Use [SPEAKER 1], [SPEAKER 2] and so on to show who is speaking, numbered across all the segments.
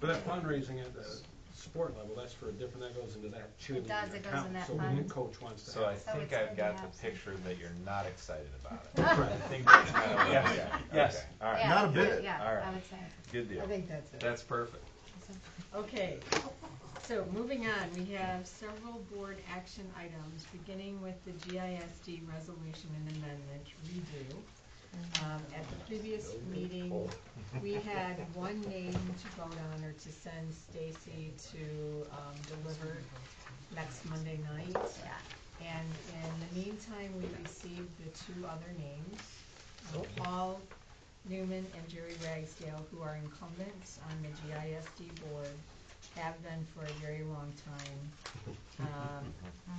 [SPEAKER 1] But that fundraising at the sport level, that's for a different, that goes into that
[SPEAKER 2] It does,
[SPEAKER 1] cheerleading
[SPEAKER 2] it goes in
[SPEAKER 1] account,
[SPEAKER 2] that
[SPEAKER 1] so when the
[SPEAKER 2] fund.
[SPEAKER 1] coach wants to
[SPEAKER 3] So I
[SPEAKER 1] have.
[SPEAKER 2] So
[SPEAKER 3] think
[SPEAKER 2] it's
[SPEAKER 3] I've
[SPEAKER 2] good
[SPEAKER 3] got
[SPEAKER 2] to have
[SPEAKER 3] the
[SPEAKER 2] some.
[SPEAKER 3] picture that you're not excited about it. I
[SPEAKER 1] Right.
[SPEAKER 3] think that's kind of what
[SPEAKER 4] Yes,
[SPEAKER 3] I'm at.
[SPEAKER 4] yes.
[SPEAKER 3] Okay, All right,
[SPEAKER 2] Yeah,
[SPEAKER 4] Not a
[SPEAKER 2] yeah,
[SPEAKER 4] bit.
[SPEAKER 2] Yeah,
[SPEAKER 3] All right.
[SPEAKER 2] I would say.
[SPEAKER 3] good deal.
[SPEAKER 5] I think that's it.
[SPEAKER 3] That's perfect.
[SPEAKER 4] Okay, so moving on, we have several board action items, beginning with the GISD resolution and amendment redo. Um, at the previous meeting, we had one name to vote on or to send Stacy to, um, deliver next Monday night.
[SPEAKER 2] Yeah.
[SPEAKER 4] And in the meantime, we received the two other names, um, Paul Newman and Jerry Ragsdale, who are incumbents on the GISD board, have been for a very long time. Um,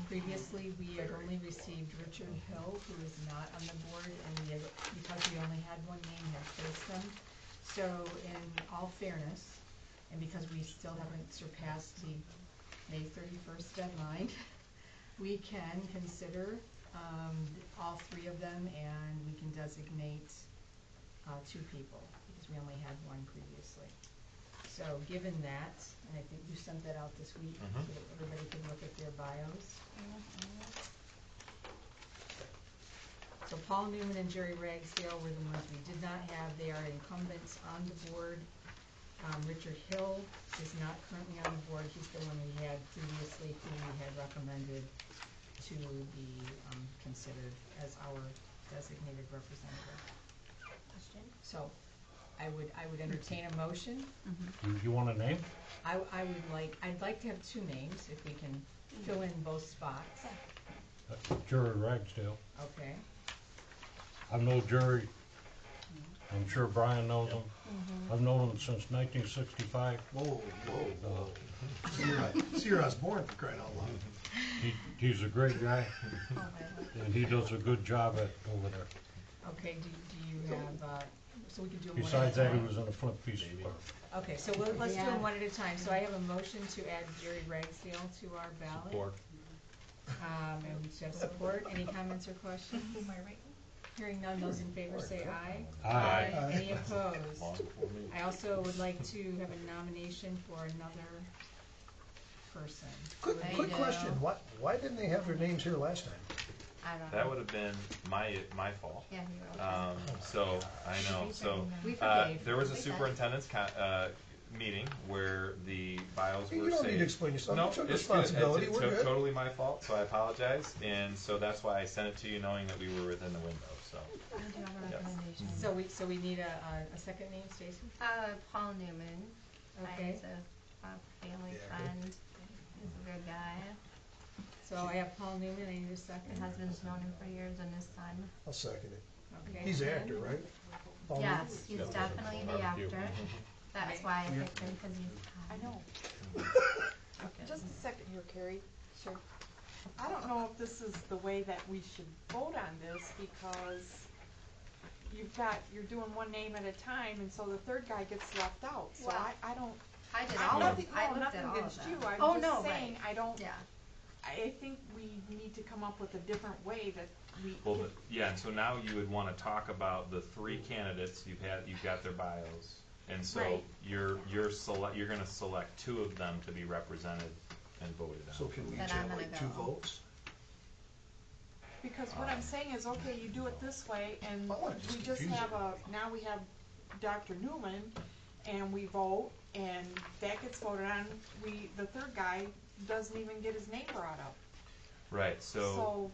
[SPEAKER 4] Previously, we had only received Richard Hill, who is not on the board, and we had, because we only had one name, had placed them. So in all fairness, and because we still haven't surpassed the May thirty-first deadline, we can consider um, all three of them, and we can designate uh, two people, because we only had one previously. So given that, and I think you sent that out this week, so
[SPEAKER 3] Mhm.
[SPEAKER 4] that everybody can look at their bios. So Paul Newman and Jerry Ragsdale were the ones we did not have. They are incumbents on the board. Um, Richard Hill is not currently on the board. He's the one we had previously, who we had recommended to be, um, considered as our designated representative.
[SPEAKER 2] Question?
[SPEAKER 4] So I would, I would entertain a motion.
[SPEAKER 6] You- You want a name?
[SPEAKER 4] I, I would like, I'd like to have two names if we can fill in both spots.
[SPEAKER 6] That's Jerry Ragsdale.
[SPEAKER 4] Okay,
[SPEAKER 6] I've known Jerry, I'm sure Brian knows him.
[SPEAKER 2] Mm-hmm.
[SPEAKER 6] I've known him since nineteen sixty-five. Uh,
[SPEAKER 5] Whoa, whoa, whoa. See, you're not- See, you're us born for crying out loud.
[SPEAKER 6] He, he's a great guy,
[SPEAKER 2] Oh,
[SPEAKER 6] and he does a good job at, over there.
[SPEAKER 4] okay, do, do you have, uh, so we can do them one at a
[SPEAKER 6] Besides that, he
[SPEAKER 4] time?
[SPEAKER 6] was in the flint piece department.
[SPEAKER 4] Okay, so we'll, let's do
[SPEAKER 2] Yeah.
[SPEAKER 4] them one at a time. So I have a motion to add Jerry Ragsdale to our ballot.
[SPEAKER 3] Support.
[SPEAKER 4] Um, and we should have support. Any comments or questions? Hearing none, those in favor say aye.
[SPEAKER 6] Aye.
[SPEAKER 4] Any opposed?
[SPEAKER 3] Long for me.
[SPEAKER 4] I also would like to have a nomination for another person.
[SPEAKER 5] Quick,
[SPEAKER 2] There you
[SPEAKER 5] quick
[SPEAKER 2] go.
[SPEAKER 5] question, why, why didn't they have their names here last time?
[SPEAKER 2] I don't know.
[SPEAKER 3] That would have been my, my fault.
[SPEAKER 2] Yeah, you were okay.
[SPEAKER 3] Um, so, I know, so,
[SPEAKER 4] We
[SPEAKER 3] uh,
[SPEAKER 4] forgave.
[SPEAKER 3] there was a
[SPEAKER 2] We got it.
[SPEAKER 3] superintendent's con, uh, meeting where the bios
[SPEAKER 5] Hey,
[SPEAKER 3] were
[SPEAKER 5] You don't need to
[SPEAKER 3] saved.
[SPEAKER 5] explain yourself,
[SPEAKER 3] No,
[SPEAKER 5] you took
[SPEAKER 3] it's good. It's-
[SPEAKER 5] responsibility,
[SPEAKER 3] it's
[SPEAKER 5] we're
[SPEAKER 3] to-
[SPEAKER 5] good.
[SPEAKER 3] totally my fault, so I apologize, and so that's why I sent it to you, knowing that we were within the window. So
[SPEAKER 2] We do have a
[SPEAKER 3] Yes.
[SPEAKER 2] recommendation.
[SPEAKER 4] So we, so we need a, a- a second name, Stacy?
[SPEAKER 2] Uh, Paul Newman,
[SPEAKER 4] Okay.
[SPEAKER 2] he's a, a family friend, he's a good guy,
[SPEAKER 4] So I have Paul Newman, I need a
[SPEAKER 2] his
[SPEAKER 4] second.
[SPEAKER 2] husband's known him for years and his son.
[SPEAKER 5] I'll second it.
[SPEAKER 4] Okay.
[SPEAKER 5] He's an actor, right? Paul Newman?
[SPEAKER 2] Yes, he's definitely the actor, that's why I picked him, cause he's hot.
[SPEAKER 7] I know. Just a second here, Carrie. Sure. I don't know if this is the way that we should vote on this because you've got, you're doing one name at a time and so the third guy gets left out. So
[SPEAKER 2] Well,
[SPEAKER 7] I, I don't,
[SPEAKER 2] I did
[SPEAKER 7] I
[SPEAKER 2] all of,
[SPEAKER 7] nothing,
[SPEAKER 2] I
[SPEAKER 7] no,
[SPEAKER 2] looked at
[SPEAKER 7] nothing
[SPEAKER 2] all of
[SPEAKER 7] against you.
[SPEAKER 2] them. Oh,
[SPEAKER 7] I'm
[SPEAKER 2] no,
[SPEAKER 7] just saying,
[SPEAKER 2] right.
[SPEAKER 7] I don't,
[SPEAKER 2] Yeah,
[SPEAKER 7] I think we need to come up with a different way that we.
[SPEAKER 3] Well, but, yeah, and so now you would wanna talk about the three candidates, you've had, you've got their bios. And so
[SPEAKER 7] Right.
[SPEAKER 3] you're, you're select, you're gonna select two of them to be represented and voted
[SPEAKER 5] So
[SPEAKER 3] on.
[SPEAKER 5] can we
[SPEAKER 2] Then
[SPEAKER 5] each
[SPEAKER 2] I'm
[SPEAKER 5] have
[SPEAKER 2] gonna
[SPEAKER 5] like two
[SPEAKER 2] go.
[SPEAKER 5] votes?
[SPEAKER 7] Because what I'm saying is, okay, you do it this way, and
[SPEAKER 5] I wanna just
[SPEAKER 7] we just
[SPEAKER 5] confuse
[SPEAKER 7] have a, now we have Dr. Newman, and we vote, and that gets voted on, we, the third guy doesn't even get his name brought up.
[SPEAKER 3] Right, so,
[SPEAKER 7] So,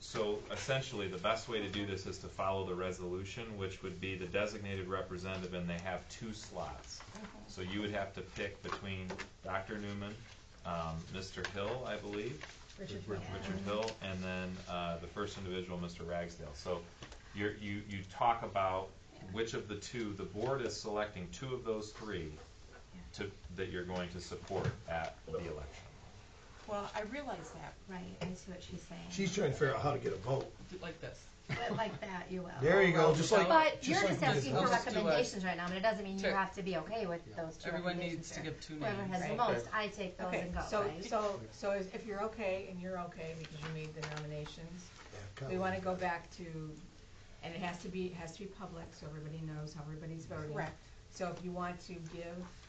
[SPEAKER 3] so essentially, the best way to do this is to follow the resolution, which would be the designated representative, and they have two slots. So you would have to pick between Dr. Newman, um, Mr. Hill, I believe,
[SPEAKER 4] Richard
[SPEAKER 3] Richard Richard Hill, and then uh, the first individual, Mr. Ragsdale. So you're, you, you talk about which of the two, the board is selecting two of those three to, that you're going to support at the election.
[SPEAKER 7] well, I realize that,
[SPEAKER 2] right, I see what she's saying,
[SPEAKER 5] She's trying to figure out how to get a vote.
[SPEAKER 8] like this.
[SPEAKER 2] but like that, you will.
[SPEAKER 5] There you go, just like.
[SPEAKER 2] But you're just
[SPEAKER 5] like
[SPEAKER 2] asking
[SPEAKER 5] this.
[SPEAKER 2] for
[SPEAKER 8] Let's do a-
[SPEAKER 2] recommendations right now, but it doesn't mean you
[SPEAKER 8] Check.
[SPEAKER 2] have to be okay with those two
[SPEAKER 8] Everyone
[SPEAKER 2] recommendations
[SPEAKER 8] needs to
[SPEAKER 2] here.
[SPEAKER 8] give two
[SPEAKER 2] Whoever
[SPEAKER 8] names.
[SPEAKER 2] has the most, I take those
[SPEAKER 4] Okay,
[SPEAKER 2] and go,
[SPEAKER 4] so,
[SPEAKER 2] right?
[SPEAKER 4] so, so is- if you're okay, and you're okay, because you made the nominations, we wanna go back to, and it has to be, it has to be public, so everybody knows how everybody's voting.
[SPEAKER 7] correct?
[SPEAKER 4] So if you want to give